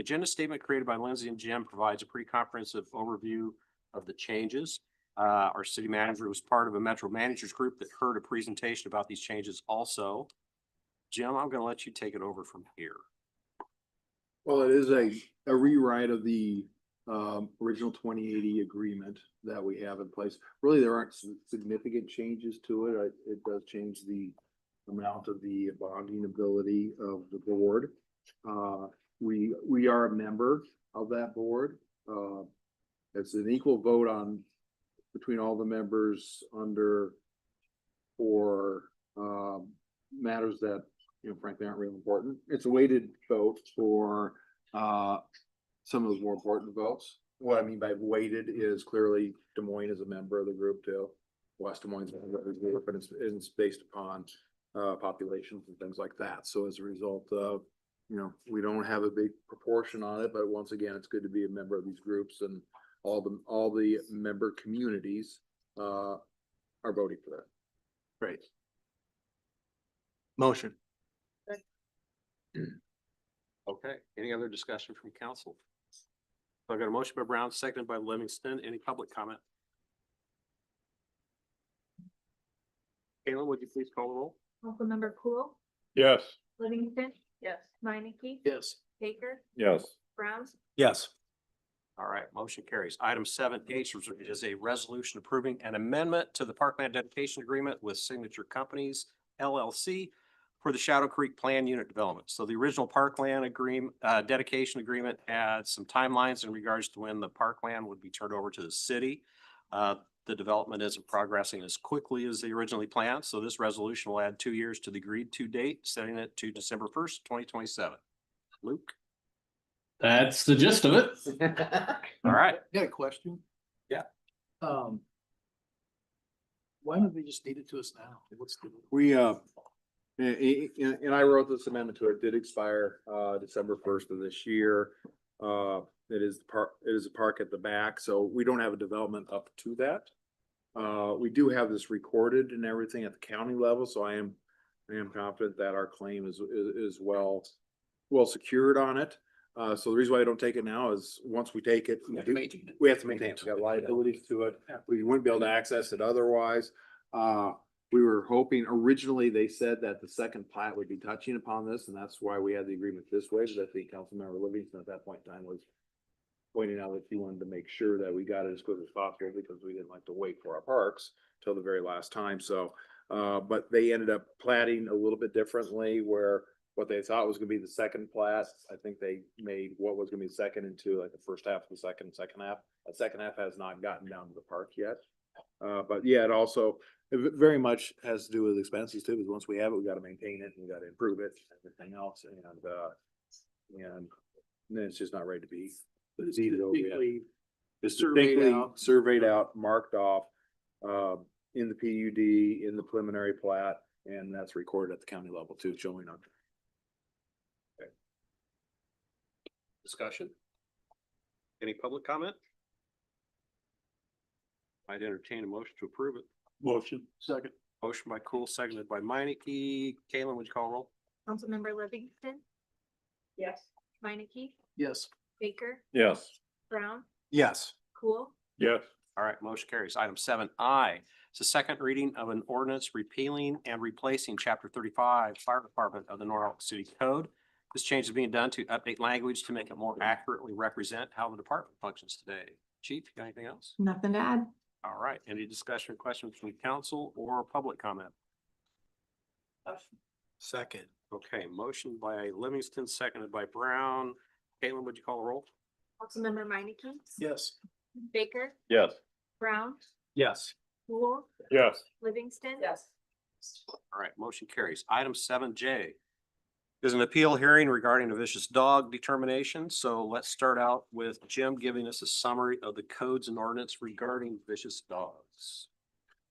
The Agenda statement created by Lindsay and Jim provides a pretty comprehensive overview of the changes. Uh, our city manager was part of a Metro Managers Group that heard a presentation about these changes also. Jim, I'm gonna let you take it over from here. Well, it is a, a rewrite of the, um, original twenty eighty agreement that we have in place. Really, there aren't si- significant changes to it. I- It does change the amount of the bonding ability of the board. Uh, we, we are a member of that board. Uh, it's an equal vote on, between all the members under for, um, matters that you know, frankly, aren't real important. It's a weighted vote for uh some of those more important votes. What I mean by weighted is clearly Des Moines is a member of the group too. West Des Moines is a member of the group, but it's it's based upon uh populations and things like that. So as a result of, you know, we don't have a big proportion on it, but once again, it's good to be a member of these groups and all the all the member communities uh are voting for that. Great. Motion. Okay, any other discussion from council? So I got a motion by Brown, seconded by Livingston. Any public comment? Kayla, would you please call the roll? Councilmember Cool, Yes. Livingston. Yes. Minneke. Yes. Baker, Yes. Brown, Yes. All right, motion carries. Item seven H is a resolution approving an amendment to the Parkland dedication agreement with Signature Companies LLC for the Shadow Creek Plan Unit Development. So the original Parkland agreement, uh, dedication agreement had some timelines in regards to when the parkland would be turned over to the city. Uh, the development isn't progressing as quickly as they originally planned, so this resolution will add two years to the agreed to date, setting it to December first, twenty twenty-seven. Luke, That's the gist of it. all right. Got a question? Yeah. Um. Why don't they just deed it to us now? What's the? We, uh, a- a- and, and I wrote this amendment to it, It did expire, uh, December first of this year. Uh, it is the park, it is a park at the back, so we don't have a development up to that. Uh, we do have this recorded and everything at the county level, so I am, I am confident that our claim is, is, is well, well secured on it. Uh, so the reason why I don't take it now is, once we take it, we have to maintain, it. we got liabilities to it, we wouldn't be able to access it otherwise. Uh, we were hoping, originally, they said that the second plat would be touching upon this, and that's why we had the agreement this way, because I think Councilmember Livingston at that point in time was pointing out that he wanted to make sure that we got it as quick as possible, because we didn't like to wait for our parks till the very last time, so. Uh, but they ended up platting a little bit differently, where what they thought was gonna be the second plat, I think they made what was gonna be the second into like the first half of the second, second half. The second half has not gotten down to the park yet. Uh, but yeah, it also, it ve- very much has to do with expenses too, because once we have it, we gotta maintain it, and we gotta improve it, and everything else, and, uh, and then it's just not ready to be. deeded over yet. It's surveyed distinctly out. surveyed out, marked off, uh, in the PUD, in the preliminary plat, and that's recorded at the county level too, showing up. Discussion? Any public comment? I'd entertain a motion to approve it. Motion. Second. Motion by Cool, seconded by Minneke. Kalen, would you call roll? Councilmember Livingston. Yes. Minneke, Yes. Baker, Yes. Brown, Yes. Cool, Yes. All right, motion carries. Item seven I, it's the second reading of an ordinance repealing and replacing chapter thirty-five Fire Department of the Norwalk City Code. This change is being done to update language to make it more accurately represent how the department functions today. Chief, you got anything else? Nothing to add. All right, any discussion or questions from council or public comment? Second. Okay, motion by Livingston, seconded by Brown. Caitlin, would you call a roll? Councilmember Minneke. Yes. Baker, Yes. Brown, Yes. Cool, Yes. Livingston. Yes. All right, motion carries. Item seven J is an appeal hearing regarding a vicious dog determination. So let's start out with Jim giving us a summary of the codes and ordinance regarding vicious dogs.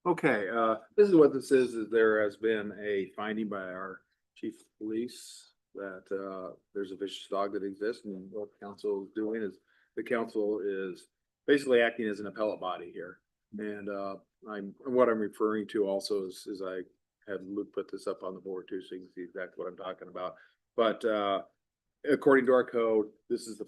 Okay, uh, this is what this is, is there has been a finding by our chief of police that, uh, there's a vicious dog that exists and what the council is doing is, the council is basically acting as an appellate body here. And, uh, I'm, and what I'm referring to also is, is I had Luke put this up on the board too, so you can see exactly what I'm talking about. But, uh, according to our code, this is the